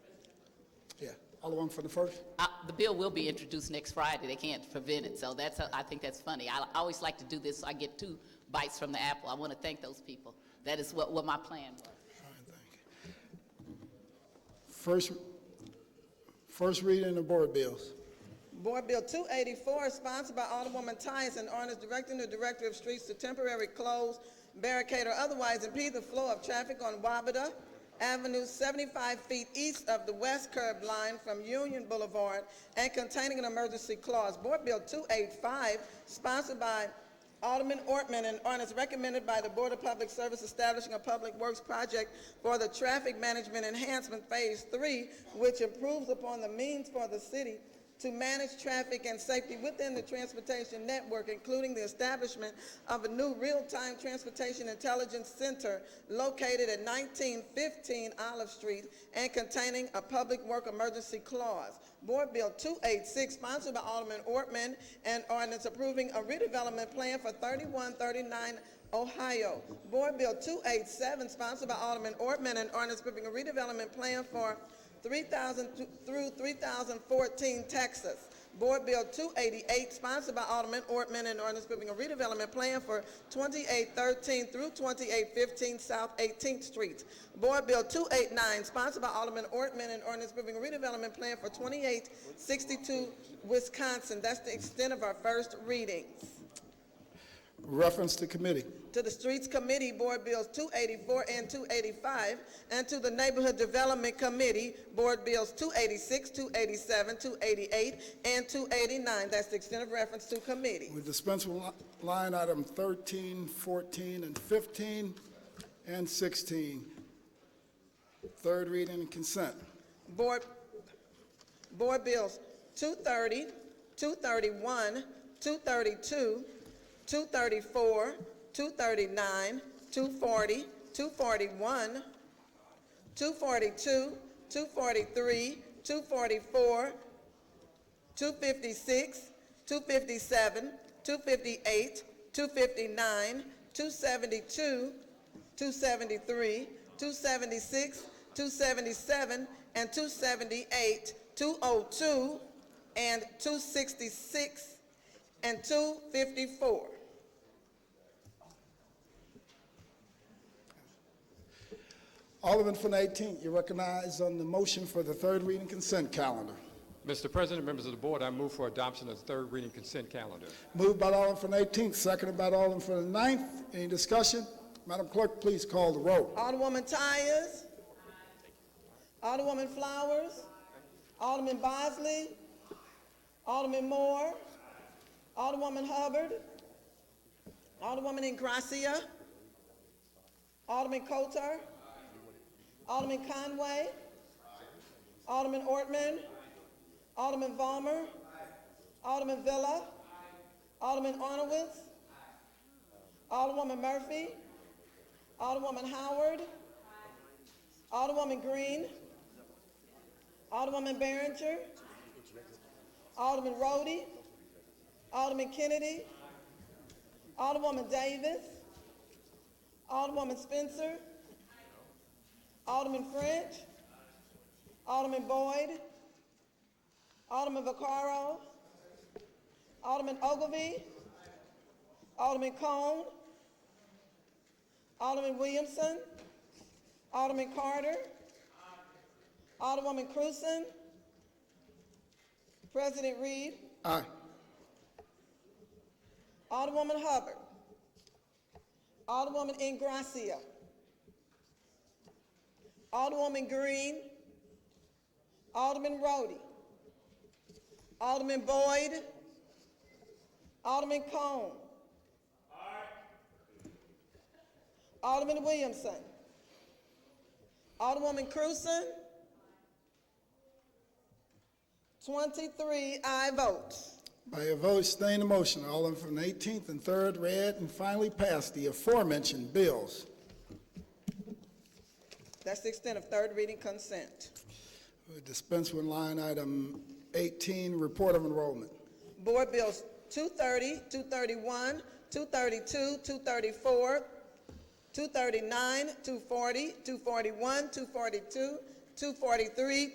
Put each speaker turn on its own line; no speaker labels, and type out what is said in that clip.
Alderman from the first?
Uh, The bill will be introduced next Friday. They can't prevent it, so that's, uh, I think that's funny. I I always like to do this, so I get two bites from the apple. I want to thank those people. That is what, what my plan was.
First, first reading of board bills.
Board Bill 284 is sponsored by Alderwoman Tyson, ordinance directing the Director of Streets to temporarily close, barricade, or otherwise impede the flow of traffic on Wabata Avenue 75 feet east of the west curb line from Union Boulevard and containing an emergency clause. Board Bill 285, sponsored by Alderman Ortman, an ordinance recommended by the Board of Public Service establishing a public works project for the traffic management enhancement phase three, which improves upon the means for the city to manage traffic and safety within the transportation network, including the establishment of a new real-time transportation intelligence center located at 1915 Olive Street and containing a public work emergency clause. Board Bill 286, sponsored by Alderman Ortman, and ordinance approving a redevelopment plan for 3139 Ohio. Board Bill 287, sponsored by Alderman Ortman, and ordinance approving a redevelopment plan for 3,000 th- through 3,014 Texas. Board Bill 288, sponsored by Alderman Ortman, and ordinance approving a redevelopment plan for 2813 through 2815 South 18th Street. Board Bill 289, sponsored by Alderman Ortman, and ordinance approving a redevelopment plan for 2862 Wisconsin. That's the extent of our first readings.
Reference to committee.
To the Streets Committee, Board Bills 284 and 285, and to the Neighborhood Development Committee, Board Bills 286, 287, 288, and 289. That's the extent of reference to committee.
We dispense with li- line item 13, 14, and 15, and 16. Third reading and consent.
Board, Board Bills 230, 231, 232, 234, 239, 240, 241, 242, 243, 244, 256, 257, 258, 259, 272, 273, 276, 277, and 278, 202, and 266, and 254.
Alderman from the 18th, you recognize on the motion for the third reading consent calendar.
Mr. President, members of the board, I move for adoption of the third reading consent calendar.
Moved by Alderman from the 18th, seconded by Alderman from the 9th. Any discussion? Madam Clerk, please call the roll.
Alderwoman Tyers. Alderwoman Flowers. Alderman Bosley. Alderman Moore. Alderwoman Hubbard. Alderwoman Ingracia. Alderman Coulter. Alderman Conway. Alderman Ortman. Alderman Valmer. Alderman Villa. Alderman Arnowitz. Alderwoman Murphy. Alderwoman Howard. Alderwoman Green. Alderwoman Behringer. Alderman Rhodey. Alderman Kennedy. Alderwoman Davis. Alderwoman Spencer. Alderman French. Alderman Boyd. Alderman Vaccaro. Alderman Ogilvy. Alderman Cone. Alderman Williamson. Alderman Carter. Alderwoman Cruzen. President Reed.
Aye.
Alderwoman Hubbard. Alderwoman Ingracia. Alderwoman Green. Alderman Rhodey. Alderman Boyd. Alderman Cone. Alderman Williamson. Alderwoman Cruzen. Twenty-three I votes.
By your vote, sustain the motion. Alderman from the 18th and 3rd read and finally passed the aforementioned bills.
That's the extent of third reading consent.
We dispense with line item 18, report of enrollment.
Board Bills 230, 231, 232, 234, 239, 240, 241, 242, 243,